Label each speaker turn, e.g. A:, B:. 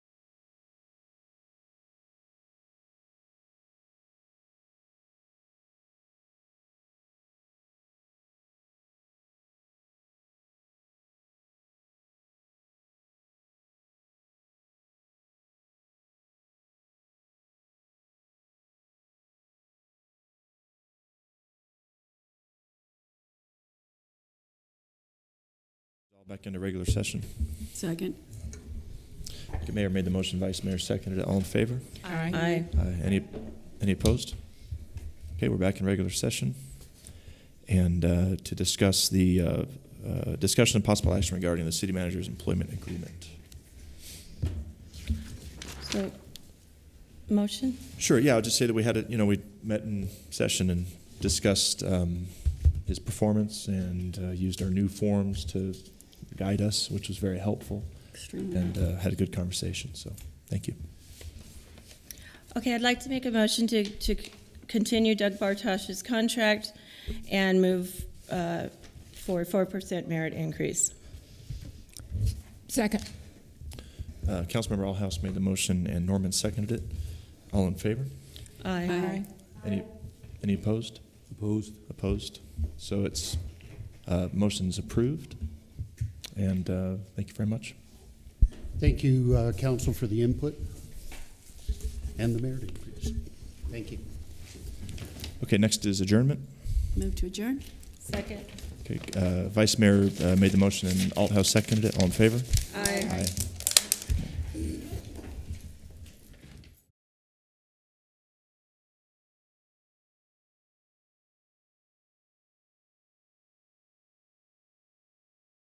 A: Back into regular session.
B: Second.
A: The mayor made the motion, vice mayor seconded it. All in favor?
C: Aye.
A: Aye. Any, any opposed? Okay, we're back in regular session. And uh, to discuss the uh, uh, discussion and possible action regarding the city manager's employment agreement.
C: So, motion?
A: Sure, yeah, I'll just say that we had, a you know, we met in session and discussed um, his performance and uh, used our new forms to guide us, which was very helpful,
B: Extremely.
A: and uh, had a good conversation, so thank you.
C: Okay, I'd like to make a motion to, to continue Doug Bartosh's contract and move uh, for 4% merit increase.
D: Second.
A: Uh, Councilmember Alhouse made the motion and Norman seconded it. All in favor?
C: Aye.
A: Any, any opposed?
E: Opposed?
A: Opposed? So it's, uh, motion's approved. And, uh, thank you very much.
F: Thank you, uh, council, for the input and the merit increase. Thank you.
A: Okay, next is adjournment.
B: Move to adjourn?
C: Second.
A: Okay, uh, Vice Mayor, uh, made the motion and Althouse seconded it. All in favor?
C: Aye.
A: Aye.